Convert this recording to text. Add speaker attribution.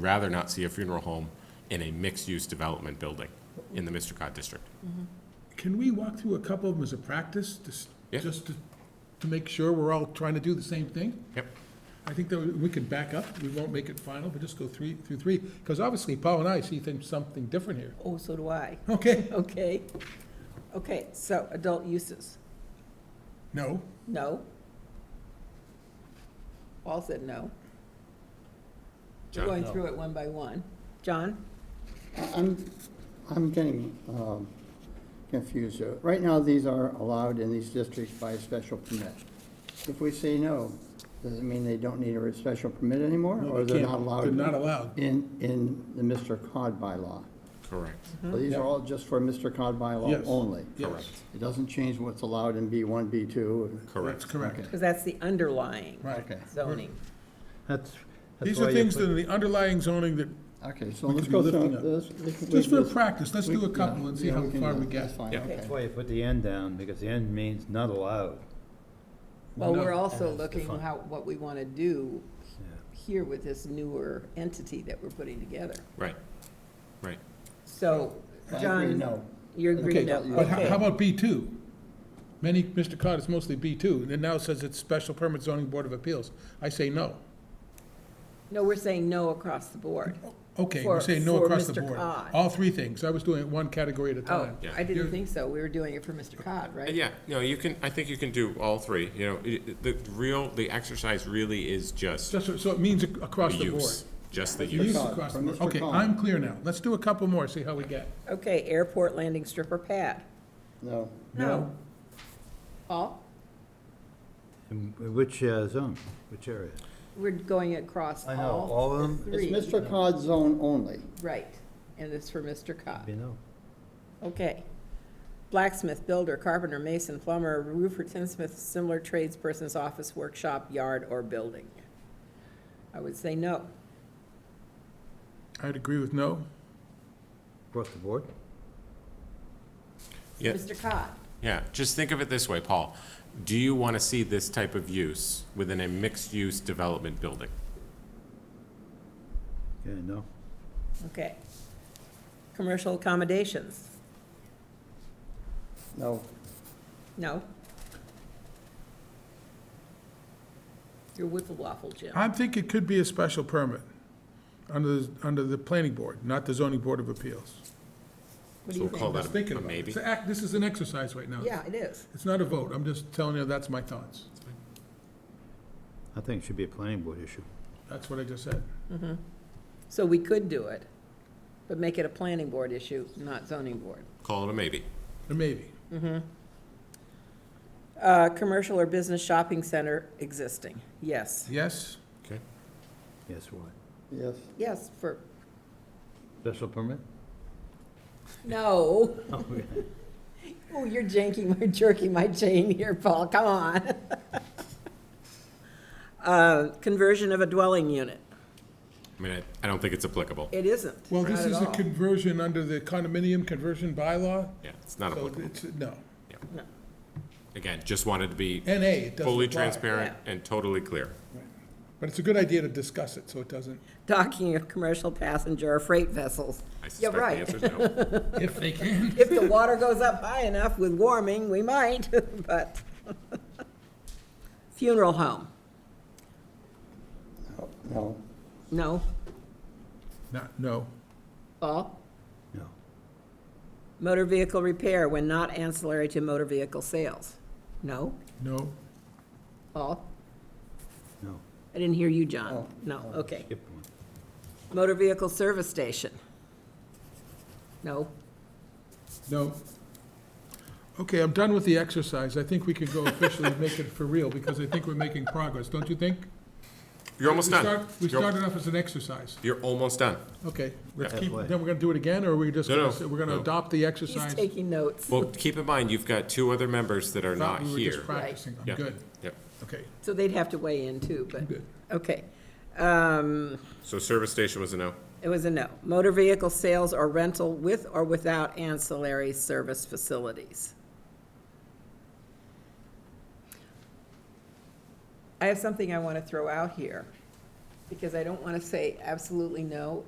Speaker 1: rather not see a funeral home in a mixed-use development building in the Mr. district.
Speaker 2: Can we walk through a couple of them as a practice, just,
Speaker 1: Yeah.
Speaker 2: just to, to make sure we're all trying to do the same thing?
Speaker 1: Yep.
Speaker 2: I think that we can back up, we won't make it final, but just go three, through three, because obviously Paul and I see things, something different here.
Speaker 3: Oh, so do I.
Speaker 2: Okay,
Speaker 3: Okay. Okay, so adult uses,
Speaker 2: no,
Speaker 3: no. Paul said no. We're
Speaker 1: John?
Speaker 3: going through it one by one. John?
Speaker 4: I'm, I'm getting um, confused here. Right now, these are allowed in these districts by special permit. If we say no, does it mean they don't need a special permit anymore?
Speaker 2: No,
Speaker 4: Or
Speaker 2: they
Speaker 4: they're
Speaker 2: can't.
Speaker 4: not allowed?
Speaker 2: They're not allowed.
Speaker 4: In, in the Mr. Cod bylaw.
Speaker 1: Correct.
Speaker 4: So these are all just for Mr. Cod bylaw
Speaker 2: Mm-hmm. Yes.
Speaker 4: only?
Speaker 2: yes,
Speaker 4: It doesn't change what's allowed in B1, B2?
Speaker 2: that's
Speaker 1: Correct.
Speaker 2: correct,
Speaker 3: Because that's the underlying
Speaker 2: right.
Speaker 4: Okay.
Speaker 3: zoning.
Speaker 4: That's.
Speaker 2: These are things that are the underlying zoning that,
Speaker 4: Okay, so
Speaker 2: we
Speaker 4: let's
Speaker 2: could
Speaker 4: go
Speaker 2: be
Speaker 4: through
Speaker 2: looking at.
Speaker 4: this. we can
Speaker 2: just for
Speaker 4: leave this-
Speaker 2: practice, let's
Speaker 4: we-
Speaker 2: do a
Speaker 4: yeah,
Speaker 2: couple and see
Speaker 4: yeah,
Speaker 2: how
Speaker 4: we can
Speaker 2: far
Speaker 4: do
Speaker 2: we
Speaker 4: that.
Speaker 2: get.
Speaker 4: That's fine,
Speaker 1: Yeah.
Speaker 4: okay.
Speaker 5: That's why you put the end down, because the end means not allowed.
Speaker 3: Well,
Speaker 2: No.
Speaker 3: we're also
Speaker 5: That's the
Speaker 3: looking
Speaker 5: fun.
Speaker 3: how, what we want to do
Speaker 5: Yeah.
Speaker 3: here with this newer entity that we're putting together.
Speaker 1: Right, right.
Speaker 3: So,
Speaker 4: I agree,
Speaker 3: John,
Speaker 4: no.
Speaker 3: you're agreeing no,
Speaker 2: But how- how
Speaker 3: okay.
Speaker 2: about B two? Many, Mr. Cod, it's mostly B two, and it now says it's Special Permit Zoning Board of Appeals. I say no.
Speaker 3: No, we're saying no across the board.
Speaker 2: Okay, we're
Speaker 3: For-
Speaker 2: saying no
Speaker 3: for
Speaker 2: across the
Speaker 3: Mr.
Speaker 2: board.
Speaker 3: Cod.
Speaker 2: All three things. I was doing it one category at a
Speaker 3: Oh,
Speaker 2: time.
Speaker 1: Yeah.
Speaker 3: I
Speaker 2: You're-
Speaker 3: didn't think so. We were doing it for Mr. Cod, right?
Speaker 1: Uh, Yeah, no, you can, I think you can do all three, you know, i- i- the real, the exercise really is just
Speaker 2: Just, so- so it means ac-
Speaker 1: the
Speaker 2: across the board.
Speaker 1: use. Just the
Speaker 2: Use
Speaker 1: use.
Speaker 4: Cod,
Speaker 2: across the
Speaker 4: from
Speaker 2: board.
Speaker 4: Mr.
Speaker 2: Okay,
Speaker 4: Cod.
Speaker 2: I'm clear now. Let's do a couple more, see how we get.
Speaker 3: Okay, airport landing strip or pad?
Speaker 4: No.
Speaker 2: No.
Speaker 3: Paul,
Speaker 5: And Which uh, zone, which area?
Speaker 3: we're going across all.
Speaker 5: I know, all of
Speaker 3: the
Speaker 5: them?
Speaker 3: three.
Speaker 4: It's Mr. Cod zone only.
Speaker 3: Right, and it's for Mr.
Speaker 5: You
Speaker 3: Cod.
Speaker 5: know,
Speaker 3: Okay. Blacksmith, builder, carpenter, mason, plumber, roofer, tinsmith, similar tradesperson's office, workshop, yard, or building. I would say no.
Speaker 2: I'd agree with no.
Speaker 5: across the board?
Speaker 1: Yeah.
Speaker 3: Mr. Cod,
Speaker 1: Yeah, just think of it this way, Paul. Do you want to see this type of use within a mixed-use development building?
Speaker 5: Yeah, no.
Speaker 3: okay. Commercial accommodations,
Speaker 4: No.
Speaker 3: no. Your wiffle waffle, Jim.
Speaker 2: I think it could be a special permit under, the- under the planning board, not the zoning board of appeals.
Speaker 3: What do
Speaker 1: So
Speaker 3: you
Speaker 1: we'll call
Speaker 3: think?
Speaker 2: I was
Speaker 1: that a-
Speaker 2: thinking
Speaker 1: a
Speaker 2: about it.
Speaker 1: maybe.
Speaker 2: It's a act- This is an exercise right now.
Speaker 3: Yeah, it is.
Speaker 2: It's not a vote. I'm just telling you, that's my thoughts.
Speaker 5: I think it should be a planning board issue.
Speaker 2: That's what I just said.
Speaker 3: So we could do it, but make it a planning board issue, not zoning board.
Speaker 1: Call it a maybe.
Speaker 2: Or maybe.
Speaker 3: Uh, commercial or business shopping center existing, yes.
Speaker 2: Yes?
Speaker 1: Okay.
Speaker 5: Yes, what?
Speaker 4: Yes.
Speaker 3: Yes, for,
Speaker 5: Special permit?
Speaker 3: no. Oh, you're janking, my jerking my chain here, Paul, come on. Uh, conversion of a dwelling unit,
Speaker 1: I mean, I- I don't think it's applicable.
Speaker 3: it isn't,
Speaker 2: Well, this
Speaker 3: not at
Speaker 2: is a
Speaker 3: all.
Speaker 2: conversion under the condominium conversion bylaw,
Speaker 1: Yeah, it's not
Speaker 2: so
Speaker 1: applicable.
Speaker 2: it's, no.
Speaker 1: Again, just wanted to be
Speaker 2: NA, it doesn't
Speaker 1: fully
Speaker 2: apply.
Speaker 1: transparent and totally clear.
Speaker 2: But it's a good idea to discuss it, so it doesn't,
Speaker 3: Docking of commercial passenger or freight vessels.
Speaker 1: I
Speaker 3: You're
Speaker 1: suspect the
Speaker 3: right.
Speaker 1: answer is no.
Speaker 2: if they can.
Speaker 3: If the water goes up high enough with warming, we might, but. Funeral home,
Speaker 4: No.
Speaker 3: no.
Speaker 2: Not, no.
Speaker 3: Paul?
Speaker 5: No.
Speaker 3: Motor vehicle repair when not ancillary to motor vehicle sales, no.
Speaker 2: No.
Speaker 3: Paul?
Speaker 5: No.
Speaker 3: I didn't hear you, John. No, okay.
Speaker 5: Skip one.
Speaker 3: Motor vehicle service station, no.
Speaker 2: No. Okay, I'm done with the exercise. I think we could go officially make it for real, because I think we're making progress, don't you think?
Speaker 1: You're almost
Speaker 2: We
Speaker 1: done.
Speaker 2: start- We
Speaker 1: You're-
Speaker 2: started off as an exercise.
Speaker 1: You're almost done.
Speaker 2: Okay, let's
Speaker 5: Yeah.
Speaker 2: keep,
Speaker 5: Halfway.
Speaker 2: then we're gonna do it again, or we're just,
Speaker 1: No,
Speaker 2: gonna
Speaker 1: no,
Speaker 2: say- we're gonna
Speaker 1: no.
Speaker 2: adopt the
Speaker 3: He's
Speaker 2: exercise?
Speaker 3: taking notes,
Speaker 1: Well, keep in mind, you've got two other members that are
Speaker 2: Thought
Speaker 1: not
Speaker 2: we were just
Speaker 1: here.
Speaker 2: practicing. I'm
Speaker 1: Yeah.
Speaker 2: good,
Speaker 1: Yep.
Speaker 2: okay,
Speaker 3: so they'd have to weigh in too,
Speaker 2: I'm
Speaker 3: but,
Speaker 2: good.
Speaker 3: okay. Um,
Speaker 1: So service station was a no.
Speaker 3: It was a no. Motor vehicle sales or rental with or without ancillary service facilities. I have something I want to throw out here. because I don't want to say absolutely no